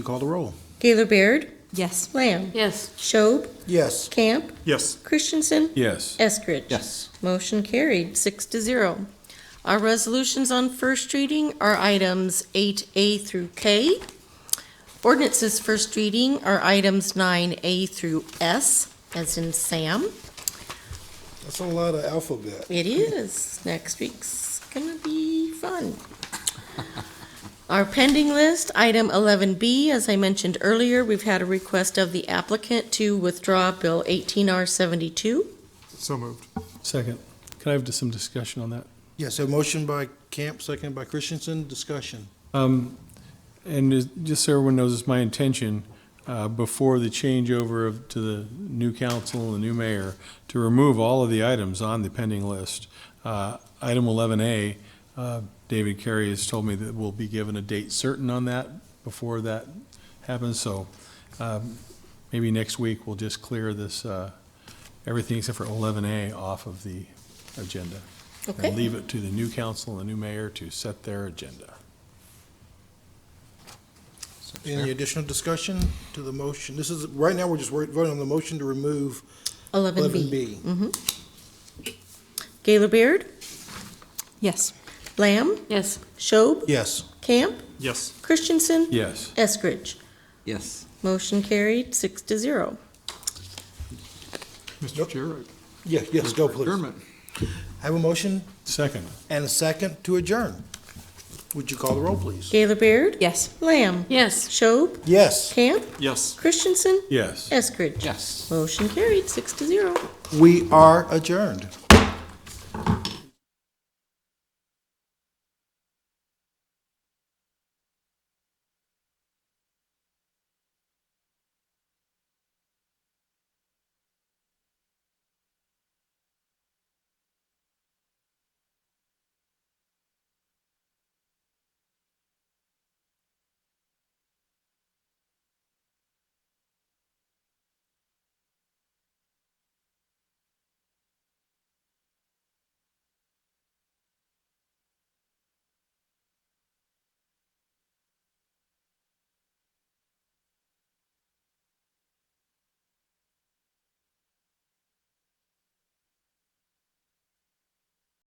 Call the roll. Gaylor Baird? Yes. Lamb? Yes. Schob? Yes. Camp? Yes. Christensen? Yes. Eskridge? Yes. Motion carried, six to zero. Our resolutions on first reading are items eight A through K. Ordinances first reading are items nine A through S, as in Sam. That's a lot of alphabet. It is. Next week's gonna be fun. Our pending list, item eleven B, as I mentioned earlier, we've had a request of the applicant to withdraw Bill eighteen R seventy-two. So moved. Second. Can I have just some discussion on that? Yes, a motion by Camp, second by Christensen, discussion. Um, And is- just so everyone knows, it's my intention, uh, before the changeover of- to the new council and the new mayor, to remove all of the items on the pending list. Uh, Item 11A, uh, David Carey has told me that we'll be given a date certain on that before that happens, so um, maybe next week we'll just clear this, uh, everything except for 11A off of the agenda. And Okay, leave it to the new council and the new mayor to set their agenda. Any additional discussion to the motion? This is, right now, we're just wor- voting on the motion to remove eleven eleven B. B. Gaylor Baird, Yes. Lamb, Yes. Schob, Yes. Camp, Yes. Christensen, Yes. Eskridge. Yes. Motion carried, six to zero. Mr. Chair. I- Yes, yes, go please. Adjournment. Have a motion Second, and a second to adjourn. Would you call the roll, please? Gaylor Baird, Yes. Lamb, Yes. Schob, Yes. Camp, Yes. Christensen, yes. Eskridge. Yes. Motion carried, six to zero. We are adjourned.